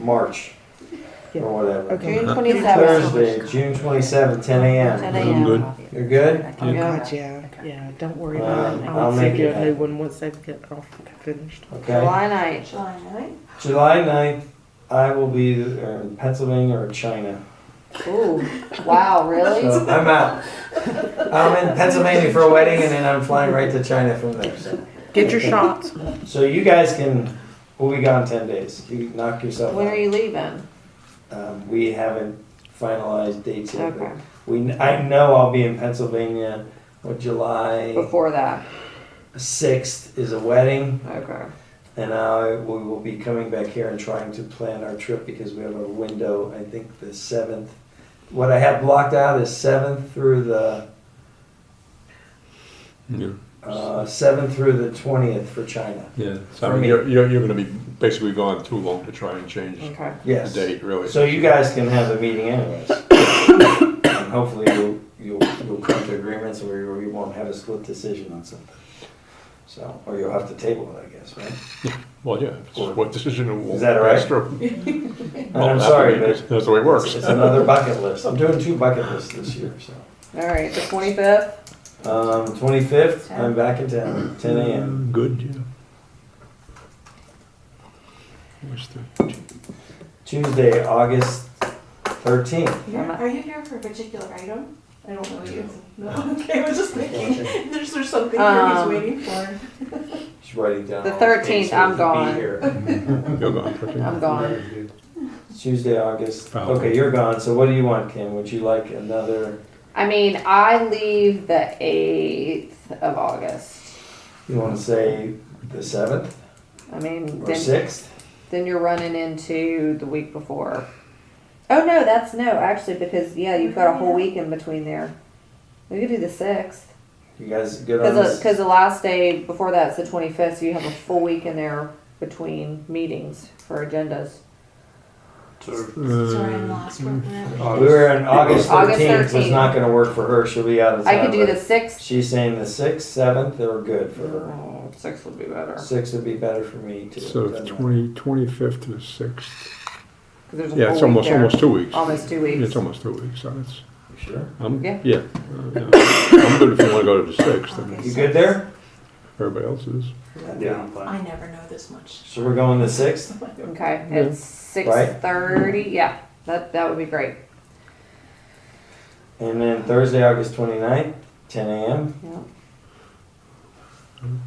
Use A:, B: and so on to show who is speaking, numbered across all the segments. A: March
B: Yeah.
A: or whatever.
B: Okay.
C: June twenty-seventh.
A: Thursday, June twenty-seventh, ten AM.
C: Ten AM.
D: good.
A: You're good?
C: I'm
B: Oh,
C: good.
B: God, yeah, yeah, don't worry
A: Uh,
B: about it.
A: I'll
B: I'll send
A: make
B: you
A: it
B: a new
A: happen.
B: one once they get off, finished.
A: Okay.
C: July ninth.
D: July ninth.
A: July ninth, I will be either in Pennsylvania or China.
C: Ooh, wow, really?
A: So I'm out. I'm in Pennsylvania for a wedding and then I'm flying right to China from there, so.
B: Get your shots.
A: So you guys can, we'll be gone ten days. You knock yourself out.
C: When are you leaving?
A: Um, we haven't finalized dates yet, but
C: Okay,
A: we, I know I'll be in Pennsylvania with July
C: before that,
A: sixth is a wedding.
C: okay.
A: And I, we will be coming back here and trying to plan our trip because we have a window, I think the seventh. What I have blocked out is seventh through the,
D: Yeah.
A: uh, seventh through the twentieth for China.
D: Yeah.
A: For
D: So I mean,
A: me.
D: you're, you're, you're gonna be basically gone too long to try and change
C: Okay.
D: the
A: Yes.
D: date, really.
A: So you guys can have a meeting anyways. And hopefully you'll, you'll, you'll come to agreements or you won't have a split decision on something. So, or you'll have to table it, I guess, right?
D: Well, yeah, it's just what decision it will.
A: Is that all right?
D: pass through.
A: And
D: Well,
A: I'm
D: that's
A: sorry,
D: the way-
A: but
D: That's the way it
A: it's
D: works.
A: it's another bucket list. I'm doing two bucket lists this year, so.
C: All right, the twenty-fifth?
A: Um, 25th, I'm back in town, 10 a.m.
D: Mm, Good, yeah. Where's the,
A: Tuesday, August 13th.
C: Yeah.
E: Are you here for a particular item? I don't know you. No, okay, I was just thinking,
A: Okay.
E: there's, there's something here he's
C: Um,
E: waiting for.
A: She's writing down.
C: The
A: all dates
C: 13th,
A: so we
C: I'm gone.
A: can be here.
D: you're gone, okay.
C: I'm gone.
A: Tuesday, August.
D: Fine.
A: Okay, you're gone. So what do you want, Kim? Would you like another?
C: I mean, I leave the eighth of August.
A: You want to say the 7th
C: I mean,
A: or
C: then,
A: 6th?
C: then you're running into the week before. Oh, no, that's no, actually, because, yeah, you've got a whole week in between there. We could do the sixth.
A: You guys good on
C: Because
A: this?
C: the, last day before that's the 25th, so you have a full week in there between meetings for agendas.
E: Sorry, I'm lost. Where-
D: Mm.
E: where-
A: We were in August 13th.
C: August
A: was
C: 13th.
A: not going to work for her. She'll be out of town.
C: I could do
A: but
C: the 6th.
A: She's saying the 6th, 7th are good for her.
C: Oh, 6 would be better.
A: 6 would be better for me
D: Uh,
A: too.
F: So
A: Doesn't matter.
F: twenty, twenty-fifth to the sixth.
C: 'Cause there's a
D: Yeah,
C: full
D: it's
C: week
D: almost,
C: there.
D: almost two weeks.
C: Almost two weeks.
D: It's almost two weeks, so it's,
A: You Sure.
D: I'm,
C: Yeah.
D: yeah. uh, yeah. I'm good if you wanna go to the sixth, I mean,
A: You good there?
D: everybody else is.
E: I never know this much.
A: So we're going the sixth?
C: Okay,
F: Yeah.
C: it's 6.30. Yeah, that, that would be great.
A: And then Thursday, August 29th, 10 a.m.
C: Yeah.
D: I'm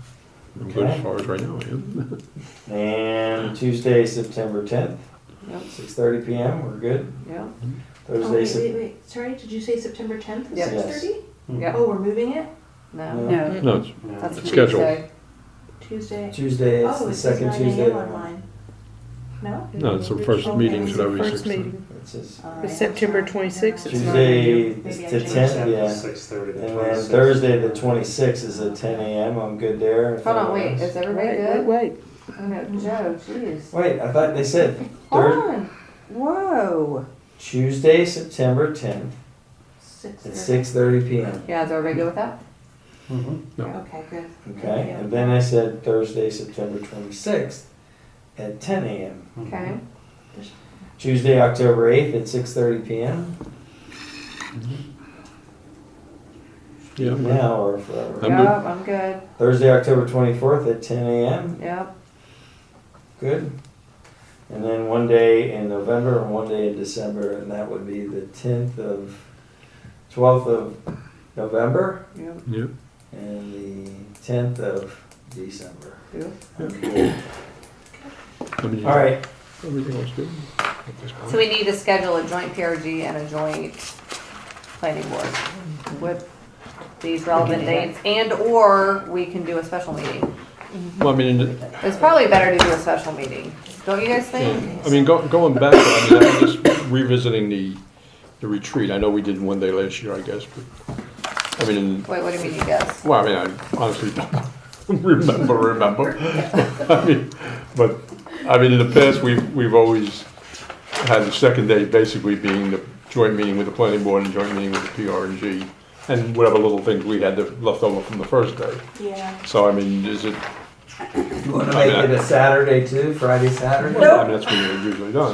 D: good
A: Okay.
D: as far as right now, yeah.
A: And Tuesday, September 10th,
C: Yep.
A: 6.30 p.m. We're good.
C: Yeah.
E: Oh,
A: Thursday,
E: wait,
A: Sep-
E: wait, wait, sorry, did you say September tenth,
C: Yeah.
E: six thirty?
C: Yeah.
E: Oh, we're moving it?
C: No.
A: No.
D: No, it's
C: That's
D: It's scheduled.
C: Tuesday.
E: Tuesday?
A: Tuesday is
E: Oh,
A: the
E: it says
A: second
E: nine
A: Tuesday.
E: AM on mine. No?
D: No, it's the first
E: Okay.
D: meeting
E: It's
D: should
E: the
D: every
B: First
D: six.
B: meeting,
A: It says
C: Uh,
E: All right,
B: it's September
E: I'm sorry.
B: 26th, it's not
A: Tuesday
B: a
A: is
E: Maybe I
A: the
E: changed
A: 10th, yeah.
G: Six thirty to
A: And
G: twenty
A: then
G: six.
A: Thursday, the 26th is at 10 a.m. I'm good there. if
C: Hold on,
A: anyone
C: wait.
A: else-
C: Is everybody
B: Wait, wait,
C: good?
B: wait.
C: Oh, no, Joe, jeez.
A: Wait, I thought they said
C: Hold
A: Thurs-
C: on. Whoa.
A: Tuesday, September 10th
E: Six
A: at
E: thirty.
A: 6.30 p.m.
C: Yeah, is everybody good with that?
E: Okay, good.
A: Okay? And then I said Thursday, September 26th at 10 a.m.
C: Okay.
A: Tuesday, October 8th at 6:30 PM,
D: Mm-hmm. Yeah, I'm good.
A: now or forever.
D: I'm good.
C: yep, I'm good.
A: Thursday, October 24th at 10 AM,
C: Yep.
A: good. And then one day in November and one day in December, and that would be the 10th of, 12th of November
C: Yep.
D: yeah.
A: and the 10th of December.
C: yep.
D: I mean,
A: All right,
D: Everything else good?
C: So we need to schedule a joint PRG and a joint planning board with these relevant dates, and/or we can do a special meeting.
D: Well, I mean,
C: It's probably better to do a special meeting, don't you guys think?
D: I mean, go- going back, I mean, I'm just revisiting the, the retreat. I know we did one day last year, I guess, but, I mean,
C: Wait, what do you mean, you guys?
D: well, I mean, I honestly don't remember, remember. I mean, but, I mean, in the past, we've, we've always had the second day basically being the joint meeting with the planning board and joint meeting with the PRNG and whatever little things we had that left over from the first day.
E: Yeah.
D: So, I mean, is it,
A: you wanna make it a Saturday too, Friday, Saturday?
D: I mean, that's when you're usually done.